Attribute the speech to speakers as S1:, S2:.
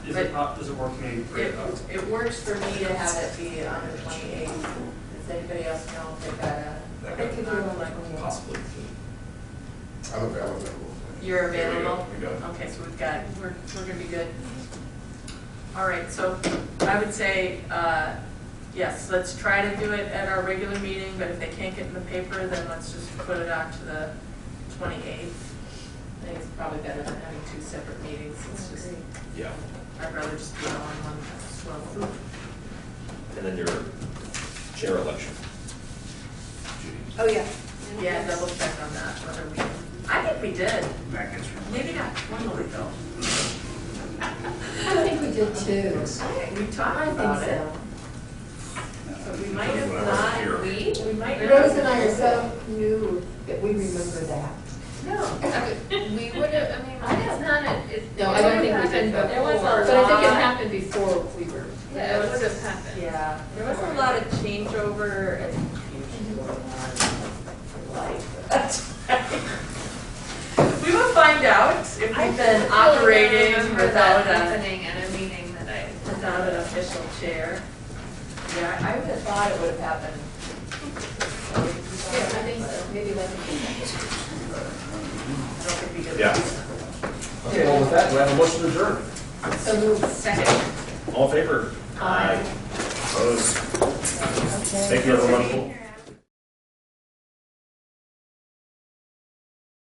S1: Is it, uh, does it work for me?
S2: It, it works for me to have it be on the twenty-eighth. Does anybody else know if they got a?
S3: I could do it on my
S2: Possibly.
S4: I'm available.
S2: You're
S3: There we go,
S2: available?
S3: We got
S2: Okay, so we've got, we're, we're gonna be good. All right, so I would say, uh, yes, let's try to do it at our regular meeting, but if they can't get in the paper, then let's just put it out to the twenty-eighth. I think it's probably better than having two separate meetings, it's just,
S3: it. Yeah,
S2: I'd rather just do it all in one, that's slow.
S3: and then your chair election.
S5: Oh, yeah.
S2: Yeah, double check on that, whether we, I think we did,
S1: That gets
S2: maybe not formally though.
S5: I think we did too.
S2: We
S5: I
S2: talked
S5: think
S2: about it,
S5: so.
S2: but we might have
S3: When I wasn't here.
S2: not, we, we might have.
S5: Rose and I are so new that we remember that.
S2: No.
S6: I would- We would have, I mean, it's not, a- it.
S5: No, I don't think we did
S6: it happened
S2: There was a
S6: before.
S5: But I think it
S2: lot.
S5: happened before we were.
S6: Yeah, it would have happened.
S2: Yeah,
S6: There was a lot of changeover and
S2: we will find out if we've been operating without a,
S6: Happening at a meeting that I.
S2: without an official chair. Yeah, I would have thought it would have happened.
S5: Maybe like.
S2: I don't think we did.
S3: Yeah.
S4: Okay, well, with that, we have a motion to adjourn.
S5: So moved.
S2: Second.
S3: All in favor?
S2: Aye.
S3: Opposed? Thank you, everyone.